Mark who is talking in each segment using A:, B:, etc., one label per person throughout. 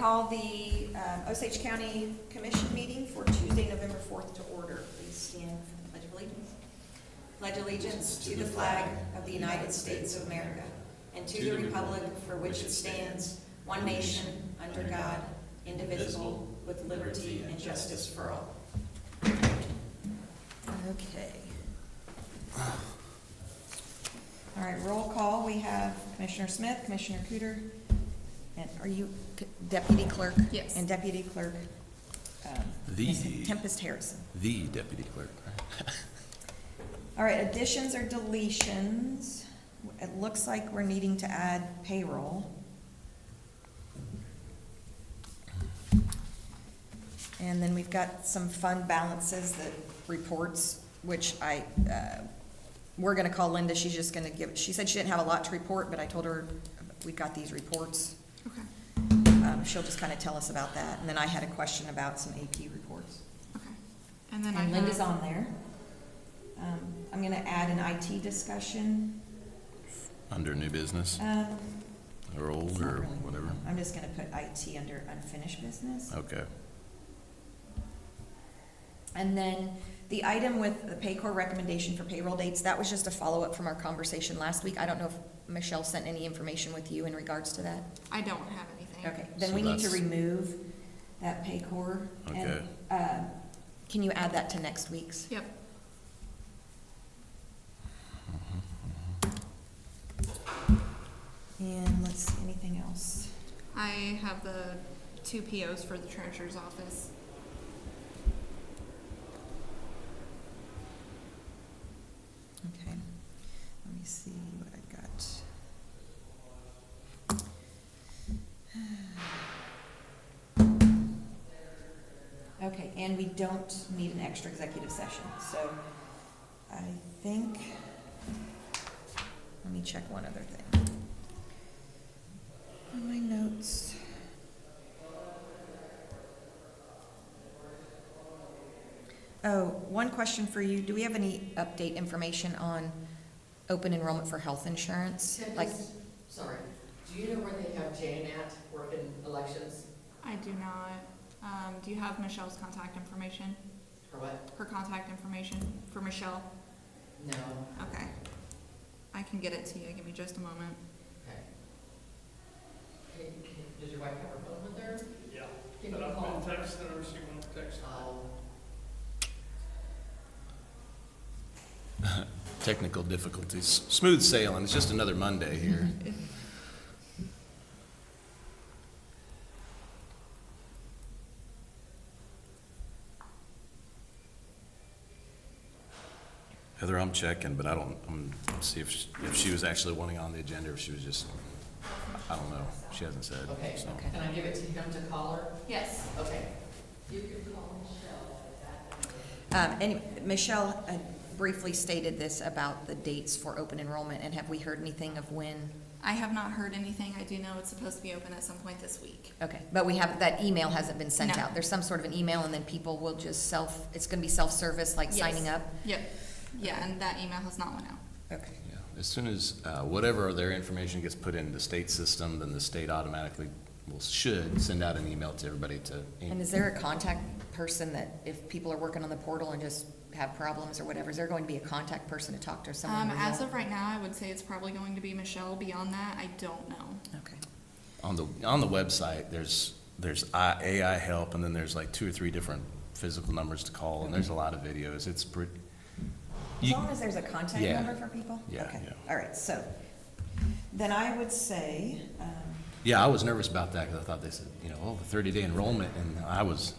A: call the uh, Osage County Commission meeting for Tuesday, November 4th to order. Please stand for the Pledge of Allegiance. Pledge allegiance to the flag of the United States of America and to the republic for which it stands, one nation, under God, indivisible, with liberty and justice for all. Okay. All right, roll call. We have Commissioner Smith, Commissioner Cooter, and are you Deputy Clerk?
B: Yes.
A: And Deputy Clerk um,
C: The-
A: Tempest Harrison.
C: The deputy clerk.
A: All right, additions or deletions? It looks like we're needing to add payroll. And then we've got some fund balances that reports, which I, uh, we're gonna call Linda, she's just gonna give, she said she didn't have a lot to report, but I told her we've got these reports.
B: Okay,
A: Um, She'll just kinda tell us about that, and then I had a question about some AP reports.
B: okay. And then I
A: And Linda's
B: have,
A: on there. Um, I'm gonna add an IT discussion.
C: Under new business
A: Um,
C: or
A: it's
C: old
A: not
C: or
A: really-
C: whatever. Uh.
A: I'm just gonna put IT under unfinished business.
C: Okay.
A: And then the item with the Paycor recommendation for payroll dates, that was just a follow-up from our conversation last week. I don't know if Michelle sent any information with you in regards to that?
B: I don't have anything.
A: Okay, then
C: So
A: we need to
C: that's-
A: remove that Paycor. and,
C: Okay.
A: uh, Can you add that to next week's?
B: Yep,
A: And let's see, anything else?
B: I have the two POs for the treasurer's office.
A: Okay, let me see what I got. Okay, and we don't need an extra executive session, so I think, let me check one other thing. On my notes. Oh, one question for you. Do we have any update information on open enrollment for health insurance? Like,
D: Tempest, sorry, do you know where they have Jane at working elections
B: I do not, um, do you have Michelle's contact information?
D: or what?
B: Her contact information for Michelle?
D: No,
B: Okay. I can get it to you. Give me just a moment.
D: okay. Hey, can- Does your wife have her phone with her?
E: Yeah,
D: Can
E: but
D: you
E: I've
D: call?
E: been texting her, she won't text.
D: Oh,
C: Technical difficulties. Smooth sailing. It's just another Monday here. Heather, I'm checking, but I don't, I'm, see if, she- if she was actually wanting on the agenda or if she was just, I don't know. She hasn't said.
D: Okay.
C: so.
A: Okay.
D: can I give it to him to call her?
B: Yes.
D: Okay. You can call Michelle at that number.
A: um, anyway, Michelle uh, briefly stated this about the dates for open enrollment, and have we heard anything of when?
B: I have not heard anything. I do know it's supposed to be open at some point this week.
A: Okay, but we have, that email hasn't been sent
B: No.
A: out. There's some sort of an email, and then people will just self, it's gonna be self-service, like signing
B: Yes.
A: up?
B: Yep. Yeah, and that email has not went out.
A: Okay.
C: Yeah, As soon as, uh, whatever their information gets put into the state system, then the state automatically will, should send out an email to everybody to.
A: And is there a contact person that, if people are working on the portal and just have problems or whatever, is there going to be a contact person to talk to, or someone?
B: Um,
A: we know?
B: as of right now, I would say it's probably going to be Michelle. Beyond that, I don't know.
A: Okay.
C: On the, on the website, there's, there's I- AI help, and then there's like two or three different physical numbers to call, and there's a lot of videos. It's pretty.
A: As
C: you-
A: long as there's a contact
C: Yeah.
A: number for people?
C: Yeah,
A: Okay.
C: yeah.
A: All right, so, then I would say, um,
C: Yeah, I was nervous about that, because I thought they said, you know, oh, the thirty-day enrollment, and I was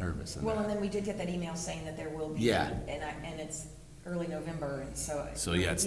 C: nervous. in
A: well, and
C: that.
A: then we did get that email saying that there will be.
C: Yeah.
A: And I, and it's early November, and so.
C: So, yeah, it's